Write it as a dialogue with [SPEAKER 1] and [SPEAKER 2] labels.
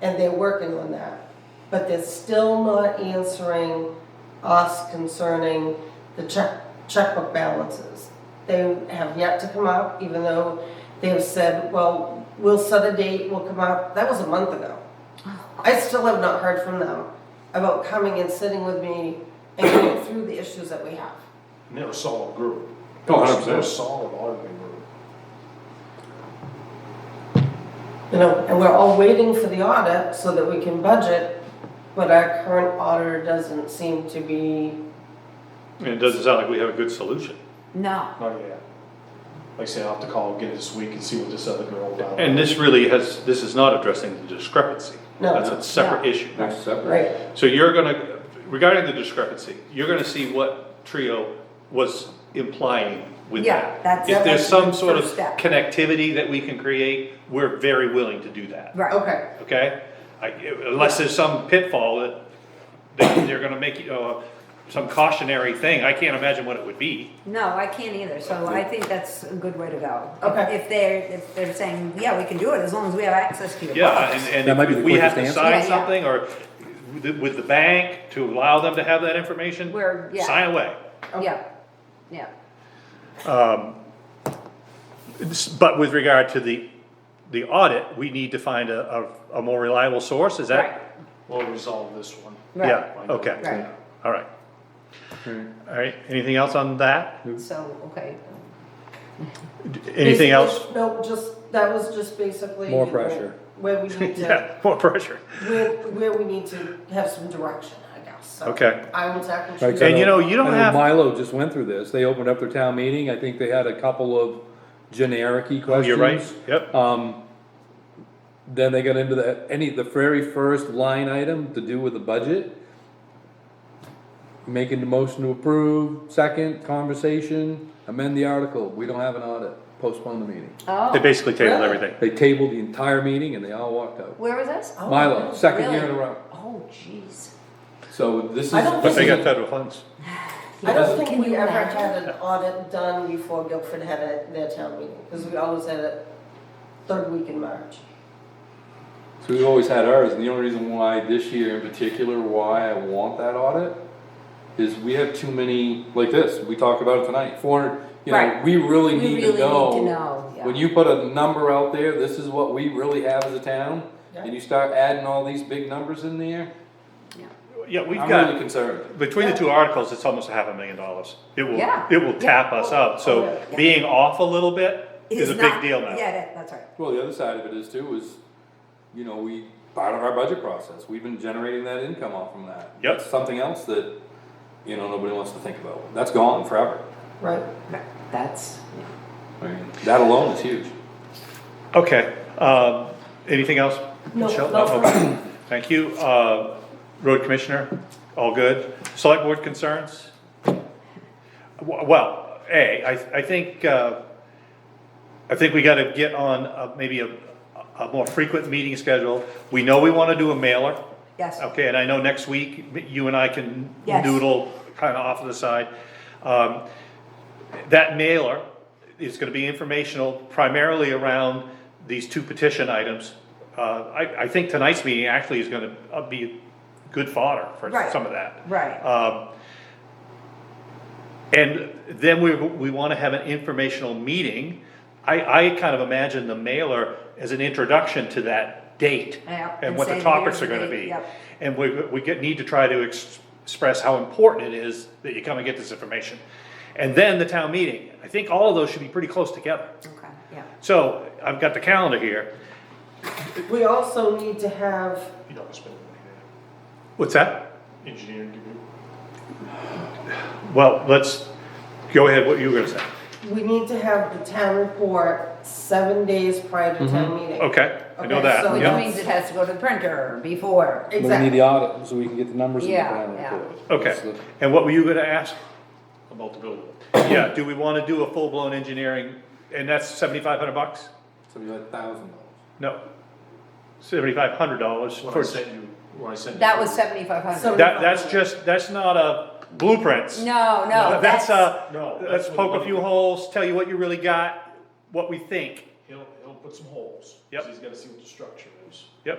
[SPEAKER 1] and they're working on that. But they're still not answering us concerning the check, checkbook balances. They have yet to come up, even though they have said, well, we'll set a date, we'll come up. That was a month ago. I still have not heard from them about coming and sitting with me and going through the issues that we have.
[SPEAKER 2] And they're a solid group.
[SPEAKER 3] Oh, 100%.
[SPEAKER 2] They're a solid auditing group.
[SPEAKER 1] You know, and we're all waiting for the audit so that we can budget, but our current auditor doesn't seem to be,
[SPEAKER 4] And it doesn't sound like we have a good solution.
[SPEAKER 5] No.
[SPEAKER 2] Not yet. Oh, Like I said, I'll have to call again this week and see what this other girl down.
[SPEAKER 4] And this really has, this is not addressing the discrepancy.
[SPEAKER 1] No.
[SPEAKER 4] That's a separate
[SPEAKER 5] No.
[SPEAKER 4] issue.
[SPEAKER 3] That's separate.
[SPEAKER 1] right,
[SPEAKER 4] So you're gonna, regarding the discrepancy, you're gonna see what Trio was implying with
[SPEAKER 5] Yeah,
[SPEAKER 4] that.
[SPEAKER 5] that's-
[SPEAKER 4] If there's some
[SPEAKER 5] that's the
[SPEAKER 4] sort of
[SPEAKER 5] first step.
[SPEAKER 4] connectivity that we can create, we're very willing to do that.
[SPEAKER 5] Right.
[SPEAKER 1] okay.
[SPEAKER 4] Okay? I- Unless there's some pitfall that, that they're gonna make, you uh, some cautionary thing, I can't imagine what it would be.
[SPEAKER 5] No, I can't either, so I think that's a good way to go.
[SPEAKER 1] Okay.
[SPEAKER 5] If they're, if they're saying, yeah, we can do it as long as we have access to your
[SPEAKER 4] Yeah,
[SPEAKER 5] box.
[SPEAKER 4] and,
[SPEAKER 3] That might
[SPEAKER 4] and
[SPEAKER 3] be
[SPEAKER 4] if
[SPEAKER 3] the
[SPEAKER 4] we have to
[SPEAKER 3] quickest
[SPEAKER 4] sign
[SPEAKER 5] answer. Yeah, yeah.
[SPEAKER 4] something, or with the- with the bank to allow them to have that information.
[SPEAKER 5] We're- yeah.
[SPEAKER 4] Sign away.
[SPEAKER 5] Yeah, yeah,
[SPEAKER 4] This- But with regard to the, the audit, we need to find a, a, a more reliable source, is
[SPEAKER 5] right,
[SPEAKER 4] that?
[SPEAKER 2] We'll resolve this one.
[SPEAKER 5] right,
[SPEAKER 4] Yeah, okay,
[SPEAKER 5] right.
[SPEAKER 4] all right.
[SPEAKER 3] Hmm.
[SPEAKER 4] All right, anything else on that?
[SPEAKER 5] So, okay,
[SPEAKER 4] D- Anything else?
[SPEAKER 1] Basically, No, just, that was just basically.
[SPEAKER 3] More
[SPEAKER 1] you know,
[SPEAKER 3] pressure.
[SPEAKER 1] Where we need to,
[SPEAKER 4] Yeah, more pressure.
[SPEAKER 1] where, where we need to have some direction, I guess, so.
[SPEAKER 4] Okay.
[SPEAKER 1] I will tackle.
[SPEAKER 3] Right, 'cause I
[SPEAKER 4] And you know, you don't
[SPEAKER 3] I
[SPEAKER 4] have-
[SPEAKER 3] Milo just went through this, they opened up their town meeting, I think they had a couple of generic-y
[SPEAKER 4] Oh,
[SPEAKER 3] questions.
[SPEAKER 4] You're right, yep,
[SPEAKER 3] Um, then they got into the, any, the very first line item to do with the budget. Making the motion to approve, second, conversation, amend the article, we don't have an audit, postpone the meeting.
[SPEAKER 4] they
[SPEAKER 5] oh,
[SPEAKER 4] basically tabled
[SPEAKER 1] Really?
[SPEAKER 4] everything.
[SPEAKER 3] They tabled the entire meeting and they all walked out.
[SPEAKER 5] where was this?
[SPEAKER 1] Oh,
[SPEAKER 3] Milo, second year in a
[SPEAKER 5] Really?
[SPEAKER 3] row,
[SPEAKER 5] Oh, jeez.
[SPEAKER 3] so this is.
[SPEAKER 1] I don't
[SPEAKER 4] But they got
[SPEAKER 3] this is-
[SPEAKER 4] federal funds.
[SPEAKER 1] I don't
[SPEAKER 5] Can
[SPEAKER 1] think we
[SPEAKER 5] you
[SPEAKER 1] ever
[SPEAKER 5] imagine?
[SPEAKER 1] had an audit done before Guilford had a- their town meeting, because we always had it third week in March.
[SPEAKER 3] So we've always had ours, and the only reason why this year in particular, why I want that audit, is we have too many, like this, we talked about it tonight, four hundred, you know,
[SPEAKER 5] Right.
[SPEAKER 3] we really
[SPEAKER 5] We
[SPEAKER 3] need
[SPEAKER 5] really
[SPEAKER 3] to
[SPEAKER 5] need to
[SPEAKER 3] know.
[SPEAKER 5] know, yeah.
[SPEAKER 3] When you put a number out there, this is what we really have as a town,
[SPEAKER 1] Yeah.
[SPEAKER 3] and you start adding all these big numbers in there,
[SPEAKER 4] Yeah, we've
[SPEAKER 3] I'm
[SPEAKER 4] got.
[SPEAKER 3] really concerned.
[SPEAKER 4] Between the two articles, it's almost a half a million dollars. It will,
[SPEAKER 5] Yeah.
[SPEAKER 4] it will tap
[SPEAKER 5] Yeah. Oh,
[SPEAKER 4] us out, so
[SPEAKER 5] Yeah.
[SPEAKER 4] being off a little bit is a
[SPEAKER 5] It's
[SPEAKER 4] big
[SPEAKER 5] not-
[SPEAKER 4] deal now.
[SPEAKER 5] Yeah, that- that's right,
[SPEAKER 3] Well, the other side of it is too, is, you know, we, part of our budget process, we've been generating that income off from that.
[SPEAKER 4] Yep.
[SPEAKER 3] That's Something else that, you know, nobody wants to think about, that's gone forever.
[SPEAKER 1] Right.
[SPEAKER 5] Right. that's,
[SPEAKER 3] I mean, that alone is huge.
[SPEAKER 4] Okay, um, anything else?
[SPEAKER 1] No,
[SPEAKER 4] Michelle?
[SPEAKER 1] no, for
[SPEAKER 4] okay.
[SPEAKER 1] us.
[SPEAKER 4] Thank you, uh, road commissioner, all good. Select board concerns? W- Well, A, I, I think, uh, I think we gotta get on uh, maybe a, a more frequent meeting schedule. We know we wanna do a mailer.
[SPEAKER 5] yes.
[SPEAKER 4] Okay, and I know next week, you and I can
[SPEAKER 5] Yes.
[SPEAKER 4] noodle kind of off to the side. Um, That mailer is gonna be informational primarily around these two petition items. Uh, I, I think tonight's meeting actually is gonna uh, be good fodder for
[SPEAKER 5] Right.
[SPEAKER 4] some of that.
[SPEAKER 5] Right.
[SPEAKER 4] Um, And then we, we wanna have an informational meeting. I, I kind of imagine the mailer as an introduction to that date.
[SPEAKER 5] Yeah,
[SPEAKER 4] And
[SPEAKER 5] and
[SPEAKER 4] what the
[SPEAKER 5] say,
[SPEAKER 4] topics are
[SPEAKER 5] "Here's the
[SPEAKER 4] gonna
[SPEAKER 5] date,"
[SPEAKER 4] be.
[SPEAKER 5] yep.
[SPEAKER 4] And we, we get, need to try to ex- express how important it is that you come and get this information. And then the town meeting, I think all of those should be pretty close together.
[SPEAKER 5] Okay, yeah,
[SPEAKER 4] So, I've got the calendar here,
[SPEAKER 1] We also need to have,
[SPEAKER 2] You don't spend money
[SPEAKER 4] what's that?
[SPEAKER 2] there. Engineering degree.
[SPEAKER 4] Well, let's, go ahead, what you were gonna say,
[SPEAKER 1] we need to have the town report seven days prior to town meeting.
[SPEAKER 4] Mm-hmm. okay, I know
[SPEAKER 1] Okay,
[SPEAKER 4] that,
[SPEAKER 1] so
[SPEAKER 5] which
[SPEAKER 4] yeah.
[SPEAKER 1] that's-
[SPEAKER 5] means it has to go to the printer before,
[SPEAKER 3] But we need the
[SPEAKER 1] Exactly.
[SPEAKER 3] audit, so we can get the numbers in the
[SPEAKER 5] Yeah,
[SPEAKER 3] final
[SPEAKER 5] yeah.
[SPEAKER 3] report. That's
[SPEAKER 4] Okay,
[SPEAKER 3] the-
[SPEAKER 4] and what were you gonna ask?
[SPEAKER 2] About the building.
[SPEAKER 4] Yeah, do we wanna do a full-blown engineering, and that's seventy-five hundred bucks?
[SPEAKER 3] Something like thousand dollars.
[SPEAKER 4] No, seventy-five hundred dollars
[SPEAKER 2] When I
[SPEAKER 4] for,
[SPEAKER 2] sent you, when I sent. you-
[SPEAKER 5] that was seventy-five
[SPEAKER 1] So-
[SPEAKER 5] hundred.
[SPEAKER 4] that, that's just, that's not a blueprints.
[SPEAKER 5] No, no, that's.
[SPEAKER 4] That's uh,
[SPEAKER 2] No,
[SPEAKER 4] a,
[SPEAKER 2] that's
[SPEAKER 4] let's
[SPEAKER 2] what
[SPEAKER 4] poke
[SPEAKER 2] the
[SPEAKER 4] a few
[SPEAKER 2] money-
[SPEAKER 4] holes, tell you what you really got, what we think.
[SPEAKER 2] He'll, he'll put some holes. 'cause
[SPEAKER 4] Yep.
[SPEAKER 2] He's gotta see what the structure is.